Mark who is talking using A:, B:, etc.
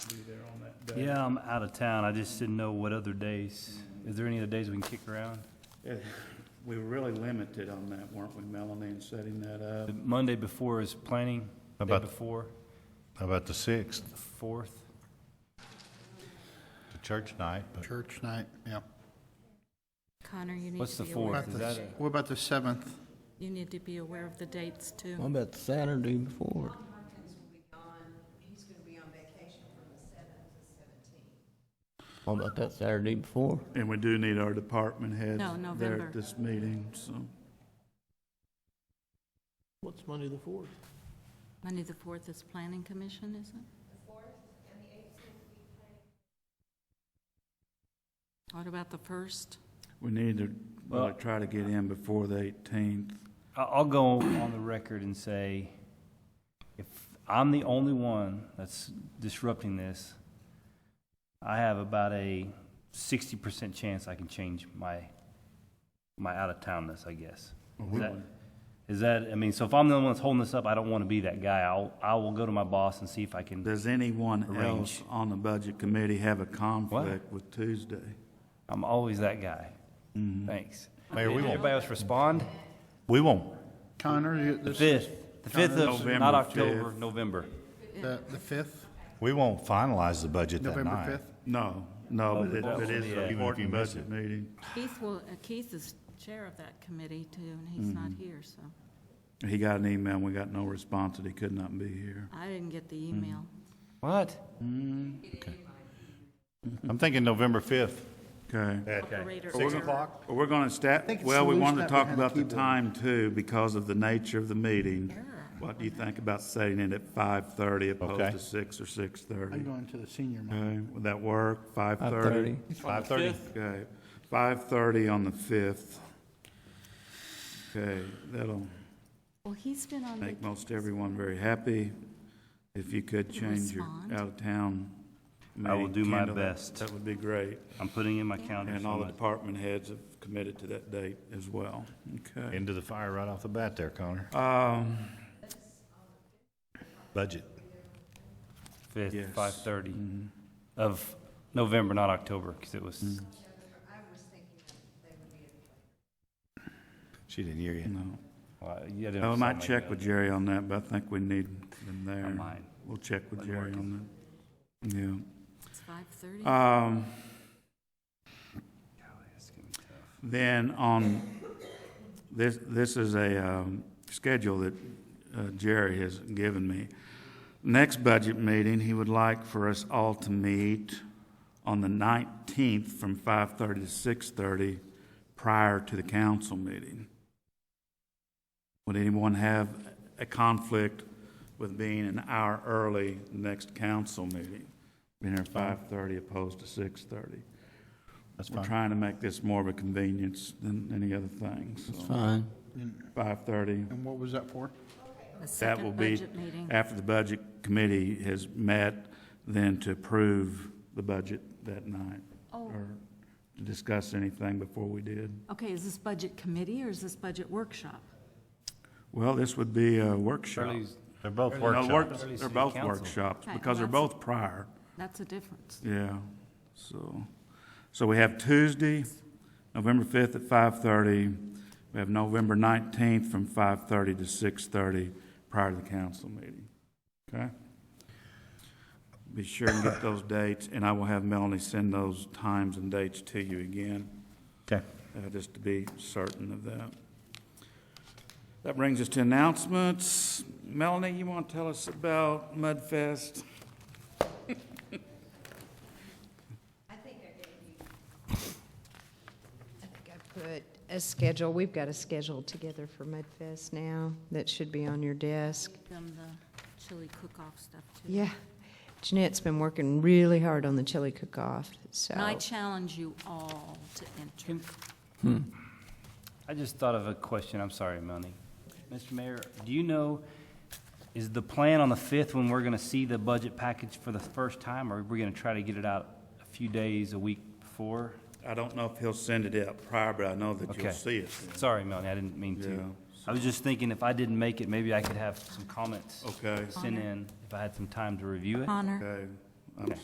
A: that.
B: Yeah, I'm out of town. I just didn't know what other days. Is there any other days we can kick around?
A: Eh, We were really limited on that, weren't we, Melanie, in setting that up?
B: The Monday before is planning,
C: How
B: day
C: about-
B: before,
C: How about the 6th,
B: the fourth.
C: the church night? but-
D: Church night, yeah.
E: Connor, you need
B: What's
E: to
B: the
E: be aware.
B: fourth? Is
E: of the
B: that a-
E: date.
D: What about the 7th?
E: You need to be aware of the dates,
F: What
E: too.
F: about the Saturday before?
G: Hopkins will be gone, he's gonna be on vacation from the seventh to seventeenth.
F: What about that Saturday before?
A: And we do need our department heads
E: No,
A: there
E: November.
A: at this meeting, so.
F: What's Monday the fourth?
E: Monday, the 4th is Planning Commission, is it? What about the 1st?
A: We need to really
B: Well-
A: try to get in before the eighteenth.
B: I- I'll go on the record and say, if I'm the only one that's disrupting this, I have about a sixty percent chance I can change my, my out-of-townness, I guess. Is that- Is that, I mean, so if I'm the only one that's holding this up, I don't want to be that guy. I'll, I will go to my boss and see if I can,
A: Does anyone else
B: Arrange.
A: on the budget committee have a conflict with Tuesday?
B: I'm always that guy. Thanks.
C: Mayor,
B: Did
C: we won't-
B: Mm-hmm. Everybody else respond?
C: We won't,
D: Connor, you-
B: The
D: this-
B: fifth, the fifth of,
A: November
B: not
A: fifth.
B: October, November.
D: the the 5th,
C: we won't finalize the budget that
D: November
C: night.
D: 5th?
A: No, no, but it,
B: Oh,
A: but it is
B: yeah.
A: an
C: Even if you
A: important
C: miss
A: budget
C: it.
A: meeting.
E: Keith will, uh, Keith is chair of that committee, too, and he's not
B: Mm-hmm.
E: here, so.
A: He got an email, we got no response that he could not be here.
E: I didn't get the email.
B: Mm-hmm. What?
C: I'm thinking November 5th.
A: Okay.
C: at
E: Operator
C: Six
E: error.
C: o'clock?
A: Well, We're going to stat,
D: think it's
A: well, we
D: solution
A: wanted to
D: that
A: talk
D: behind the
A: about the
D: keyboard.
A: time too, because of the nature of the meeting.
E: Error.
A: What do you think about setting it at five-thirty opposed
C: Okay.
A: to six or
D: I'm
A: six-thirty?
D: going to the senior moment.
A: Okay, would that work,
F: Five
A: five-thirty?
F: thirty.
C: 5:30?
A: Okay, five-thirty on the fifth. Okay, that'll
E: Well, he's been on
A: make
E: vacation.
A: most everyone very happy. If you could change your
E: Respond.
A: out-of-town
B: I will
A: meeting
B: do my
A: calendar,
B: best.
A: That would be great.
B: I'm putting in my calendar.
A: And
B: so
A: all the
B: much.
A: department heads have committed to that date as well. Okay.
C: Into the fire right off the bat there, Connor.
A: Um,
C: Budget.
A: Yes. Mm-hmm.
B: Fifth, five thirty of November, not October, because it was,
A: Mm.
C: She didn't hear you.
A: no.
B: uh, yeah. there
A: Oh, I
B: was
A: might
B: something
A: check
B: like
A: with
B: that.
A: Jerry on that, but I think we need them
B: I
A: there.
B: might.
A: We'll check with
B: Might
A: Jerry
B: work.
A: on that. Yeah.
E: It's 5:30.
A: Um,
B: Golly, that's gonna be tough.
A: Then on, this, this is a um, schedule that uh, Jerry has given me. Next budget meeting, he would like for us all to meet on the 19th from 5:30 to 6:30 prior to the council meeting. Would anyone have a conflict with being an hour early next council meeting? Being here 5:30 opposed to 6:30?
C: That's
A: We're
C: fine.
A: trying to make this more of a convenience than any other thing,
F: It's
A: so.
F: fine.
A: Five thirty,
D: And what was that for?
E: The
A: that will
E: second
A: be
E: budget meeting.
A: after the budget committee has met, then to approve the budget that night,
E: Oh,
A: or to discuss anything before we did.
E: okay, is this budget committee or is this budget workshop?
A: Well, this would be a workshop.
B: Charlie's-
C: They're both
A: No, work-
C: workshops.
B: Early
A: They're
B: city
A: both
B: council.
A: workshops,
E: Okay,
A: because they're
E: well,
A: both prior,
E: That's a difference.
A: yeah, so. So we have Tuesday, November fifth at five thirty. We have November nineteenth from five thirty to six thirty prior to the council meeting. Okay? Be sure and get those dates, and I will have Melanie send those times and dates to you again,
C: Okay.
A: uh, just to be certain of that. That brings us to announcements. Melanie, you want to tell us about Mudfest?
G: I think I gave you. I think I put a schedule, we've got a schedule together for Mudfest now that should be on your desk.
E: Them the chili cook-off stuff too.
G: Yeah, Jeanette's been working really hard on the chili cook-off, so.
E: And I challenge you all to enter.
B: I just thought of a question, I'm sorry, Melanie. Mr. Mayor, do you know, is the plan on the fifth when we're gonna see the budget package for the first time, or are we gonna try to get it out a few days, a week before?
A: I don't know if he'll send it out prior, but I know that you'll
B: Okay.
A: see it.
B: Sorry, Melanie, I didn't mean
A: Yeah,
B: to. I was just thinking if I didn't make it, maybe I could have some comments
A: Okay,
B: sent in if I had some time to review it.
E: Connor?
A: okay. I'm